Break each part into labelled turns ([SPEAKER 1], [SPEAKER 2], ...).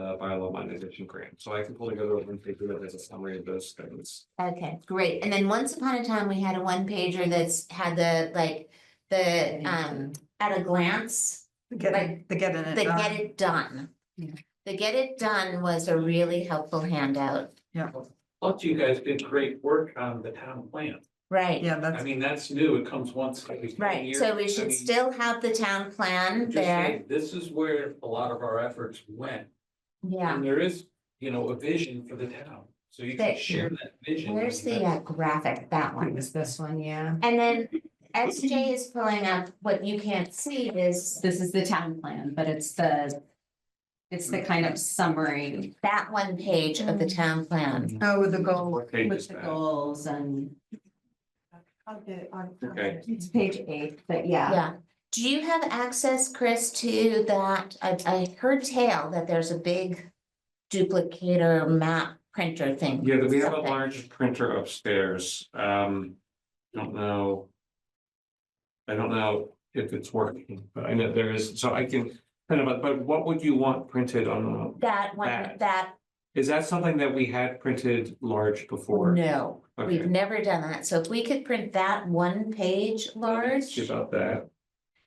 [SPEAKER 1] bylaw modernization grant, so I can pull together and figure that as a summary of those things.
[SPEAKER 2] Okay, great. And then once upon a time, we had a one pager that's had the like, the um, at a glance.
[SPEAKER 3] Getting, the getting it
[SPEAKER 2] The get
[SPEAKER 3] done.
[SPEAKER 2] it done.
[SPEAKER 3] Yeah.
[SPEAKER 2] The get it done was a really helpful handout,
[SPEAKER 4] Plus, you guys did great work on the town plan.
[SPEAKER 2] right?
[SPEAKER 3] Yeah,
[SPEAKER 4] I
[SPEAKER 3] that's,
[SPEAKER 4] mean, that's new. It comes once every ten
[SPEAKER 2] Right,
[SPEAKER 4] years.
[SPEAKER 2] so we
[SPEAKER 4] I
[SPEAKER 2] should
[SPEAKER 4] mean,
[SPEAKER 2] still have the town plan
[SPEAKER 4] just
[SPEAKER 2] there,
[SPEAKER 4] saying, This is where a lot of our efforts went.
[SPEAKER 2] yeah.
[SPEAKER 4] And there is, you know, a vision for the town. So you
[SPEAKER 2] There-
[SPEAKER 4] can share that vision.
[SPEAKER 2] Where's the uh, graphic, that one?
[SPEAKER 5] Is this one, yeah?
[SPEAKER 2] And then SJ is pulling up, what you can't see is
[SPEAKER 5] This is the town plan, but it's the, it's the kind of summary
[SPEAKER 2] that one page of the town plan.
[SPEAKER 3] oh, with the goal.
[SPEAKER 1] What page
[SPEAKER 5] with
[SPEAKER 1] is
[SPEAKER 5] the
[SPEAKER 1] that?
[SPEAKER 5] goals and
[SPEAKER 1] Okay.
[SPEAKER 5] it's
[SPEAKER 3] Mm-hmm.
[SPEAKER 5] page eight, but yeah.
[SPEAKER 2] Yeah. Do you have access, Chris, to that? I, I heard tale that there's a big duplicator map printer thing.
[SPEAKER 1] Yeah, we have a
[SPEAKER 2] Something.
[SPEAKER 1] large printer upstairs, um, don't know. I don't know if it's working, but I know there is, so I can, kind of, but what would you want printed on? a-
[SPEAKER 2] That one,
[SPEAKER 1] That.
[SPEAKER 2] that,
[SPEAKER 1] Is that something that we had printed large before?
[SPEAKER 2] no, we've
[SPEAKER 1] Okay,
[SPEAKER 2] never done that. So if we could print that one page
[SPEAKER 1] ask
[SPEAKER 2] large.
[SPEAKER 1] you about that.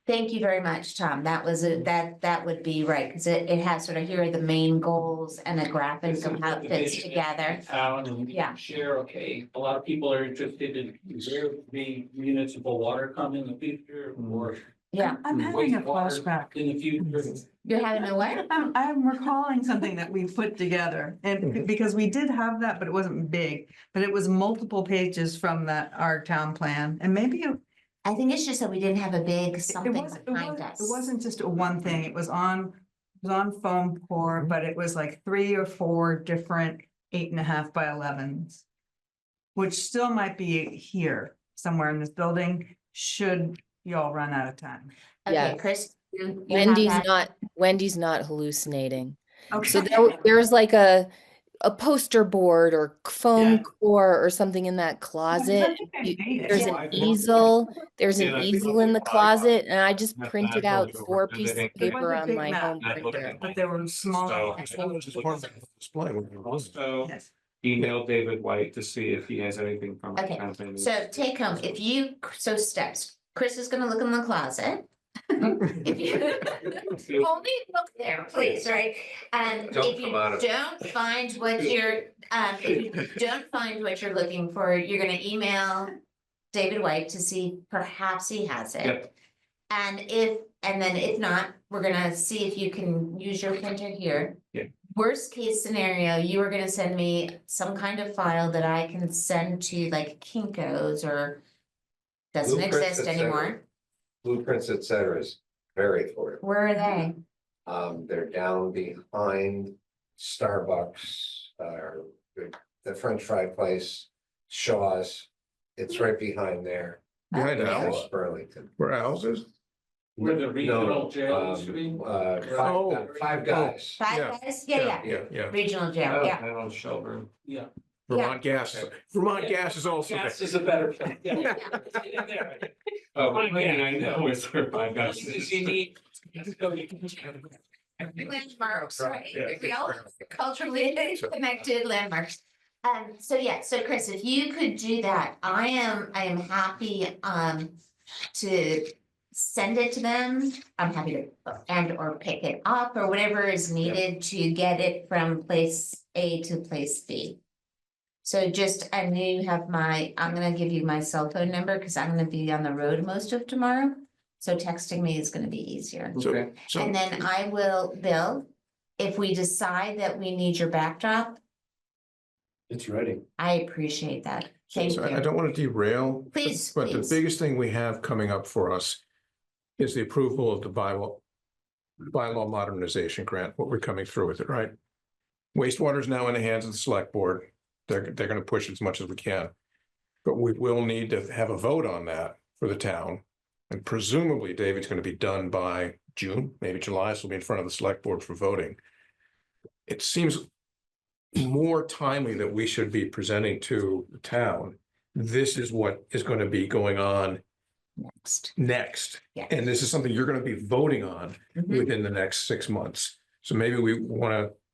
[SPEAKER 2] Thank you very much, Tom. That was, a that, that would be right, because it, it has sort of, here are the main goals and a graphic
[SPEAKER 4] This
[SPEAKER 2] of
[SPEAKER 4] is
[SPEAKER 2] how
[SPEAKER 4] the
[SPEAKER 2] it fits
[SPEAKER 4] vision
[SPEAKER 2] together.
[SPEAKER 4] of the Town and we
[SPEAKER 2] Yeah.
[SPEAKER 4] can share, okay, a lot of people are interested in where the municipal water come in the future or
[SPEAKER 6] Mm.
[SPEAKER 2] Yeah,
[SPEAKER 3] I'm having a
[SPEAKER 4] Wastewater.
[SPEAKER 3] flashback.
[SPEAKER 4] in the future.
[SPEAKER 2] you're having a what?
[SPEAKER 3] I'm, I'm recalling something that we put together and because we did have that, but it wasn't big, but it was multiple pages from that, our town plan. And maybe it
[SPEAKER 2] I think it's just that we didn't have a big
[SPEAKER 3] It
[SPEAKER 2] something
[SPEAKER 3] wasn't, it
[SPEAKER 2] behind
[SPEAKER 3] wasn't,
[SPEAKER 2] us.
[SPEAKER 3] it wasn't just a one thing, it was on, it was on foam
[SPEAKER 2] Mm-hmm.
[SPEAKER 3] core, but it was like three or four different eight and a half by elevens. Which still might be here, somewhere in this building, should y'all run out of time.
[SPEAKER 2] Okay,
[SPEAKER 7] Yes.
[SPEAKER 2] Chris. you- you have
[SPEAKER 7] Wendy's
[SPEAKER 2] that?
[SPEAKER 7] not, Wendy's not hallucinating. So
[SPEAKER 3] Okay.
[SPEAKER 7] there, w- there's like a, a poster board or c- foam
[SPEAKER 3] Yeah.
[SPEAKER 7] core or something in that closet. you- There's
[SPEAKER 1] Yeah.
[SPEAKER 7] an easel, there's
[SPEAKER 1] Yeah, I
[SPEAKER 7] an
[SPEAKER 1] think
[SPEAKER 7] easel
[SPEAKER 1] I'll
[SPEAKER 7] in the
[SPEAKER 1] put mine on.
[SPEAKER 7] closet and I just
[SPEAKER 1] That's
[SPEAKER 7] printed
[SPEAKER 1] actually
[SPEAKER 7] out
[SPEAKER 1] what we're
[SPEAKER 7] four pieces
[SPEAKER 1] doing. It
[SPEAKER 7] of
[SPEAKER 1] was a
[SPEAKER 7] paper on
[SPEAKER 3] big
[SPEAKER 7] my
[SPEAKER 3] map.
[SPEAKER 7] home
[SPEAKER 1] Not looking
[SPEAKER 7] printer.
[SPEAKER 1] at
[SPEAKER 3] But there were small.
[SPEAKER 1] Also, email David White to see if he has anything from. the
[SPEAKER 2] Okay,
[SPEAKER 1] town planning.
[SPEAKER 2] So take home, if you, so steps, Chris is gonna look in the closet. If you Only look there, please, right? And
[SPEAKER 1] Don't
[SPEAKER 2] if you
[SPEAKER 1] come out of-
[SPEAKER 2] don't find what you're, um, if you don't find what you're looking for, you're gonna email David White to see perhaps he has it.
[SPEAKER 1] Yep.
[SPEAKER 2] And if, and then if not, we're gonna see if you can use your printer here.
[SPEAKER 1] Yeah.
[SPEAKER 2] Worst case scenario, you are gonna send me some kind of file that I can send to like Kinko's or doesn't
[SPEAKER 6] Blueprints,
[SPEAKER 2] exist
[SPEAKER 6] et cetera.
[SPEAKER 2] anymore.
[SPEAKER 6] blueprints, et cetera, is very affordable.
[SPEAKER 2] Where are they?
[SPEAKER 6] Um, they're down behind Starbucks, uh, the- the French fry place, Shaw's. It's right behind there,
[SPEAKER 8] Behind
[SPEAKER 2] Okay.
[SPEAKER 8] Owl,
[SPEAKER 6] West Burlington.
[SPEAKER 8] where Owl's is?
[SPEAKER 4] Where the
[SPEAKER 6] No,
[SPEAKER 4] regional jail used to be?
[SPEAKER 6] um, Uh,
[SPEAKER 8] Oh.
[SPEAKER 6] five, five guys.
[SPEAKER 8] Yeah.
[SPEAKER 2] Five guys? Yeah, yeah.
[SPEAKER 8] Yeah, yeah.
[SPEAKER 2] Regional
[SPEAKER 1] Oh,
[SPEAKER 2] jail, yeah.
[SPEAKER 1] and on Shelburne.
[SPEAKER 4] Yeah.
[SPEAKER 8] Vermont Gas, Vermont Gas is also there.
[SPEAKER 4] Gas is a better plan. Yeah. Get in there.
[SPEAKER 1] Oh,
[SPEAKER 4] Fine,
[SPEAKER 1] yeah,
[SPEAKER 4] yeah.
[SPEAKER 1] I know, it's for five guys.
[SPEAKER 4] Places you need. Let's go, you can-
[SPEAKER 2] Landmarks, right?
[SPEAKER 8] Yeah.
[SPEAKER 2] We all culturally connected landmarks. Um, so yeah, so Chris, if you could do that, I am, I am happy, um, to send it to them. I'm happy to and or pick it up or whatever is needed to get it from place A to place B. So just, I know you have my, I'm gonna give you my cell phone number because I'm gonna be on the road most of tomorrow. So texting me is gonna be easier.
[SPEAKER 8] So, so,
[SPEAKER 2] And then I will, Bill, if we decide that we need your backdrop,
[SPEAKER 6] It's ready.
[SPEAKER 2] I appreciate that.
[SPEAKER 8] so
[SPEAKER 2] Thank
[SPEAKER 8] so I I
[SPEAKER 2] you.
[SPEAKER 8] don't want to derail. but-
[SPEAKER 2] Please,
[SPEAKER 8] But the
[SPEAKER 2] please.
[SPEAKER 8] biggest thing we have coming up for us is the approval of the bylaw, bylaw modernization grant, what we're coming through with it, right? Wastewater is now in the hands of the select board. They're, they're going to push as much as we can. But we will need to have a vote on that for the town. And presumably David's going to be done by June, maybe July, so we'll be in front of the select board for voting. It seems more timely that we should be presenting to the town. This is what is going to be going on
[SPEAKER 2] Next.
[SPEAKER 8] next.
[SPEAKER 2] Yeah.
[SPEAKER 8] And this is something you're going to be voting on
[SPEAKER 2] Mhm.
[SPEAKER 8] within the next six months. So maybe we want to